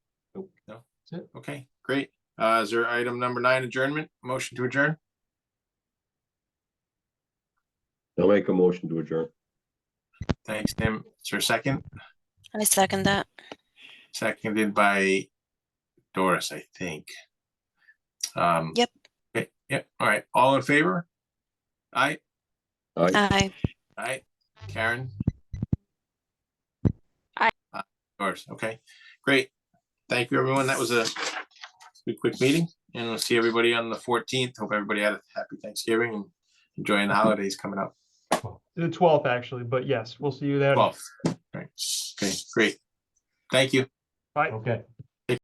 That's it. Okay, great. Uh, is there item number nine adjournment, motion to adjourn? I'll make a motion to adjourn. Thanks, Tim. Is there a second? I second that. Seconded by Doris, I think. Um. Yep. okay, Yep, all right, all in favor? Aye, Aye, Aye. aye, Karen? Aye. Uh, Doris, okay, great. Thank you, everyone. That was a good, quick meeting, and we'll see everybody on the fourteenth. Hope everybody had a happy Thanksgiving and enjoying the holidays coming up. The twelfth, actually, but yes, we'll see you there. Twelve. Right, okay, great. Thank you. Bye. Okay,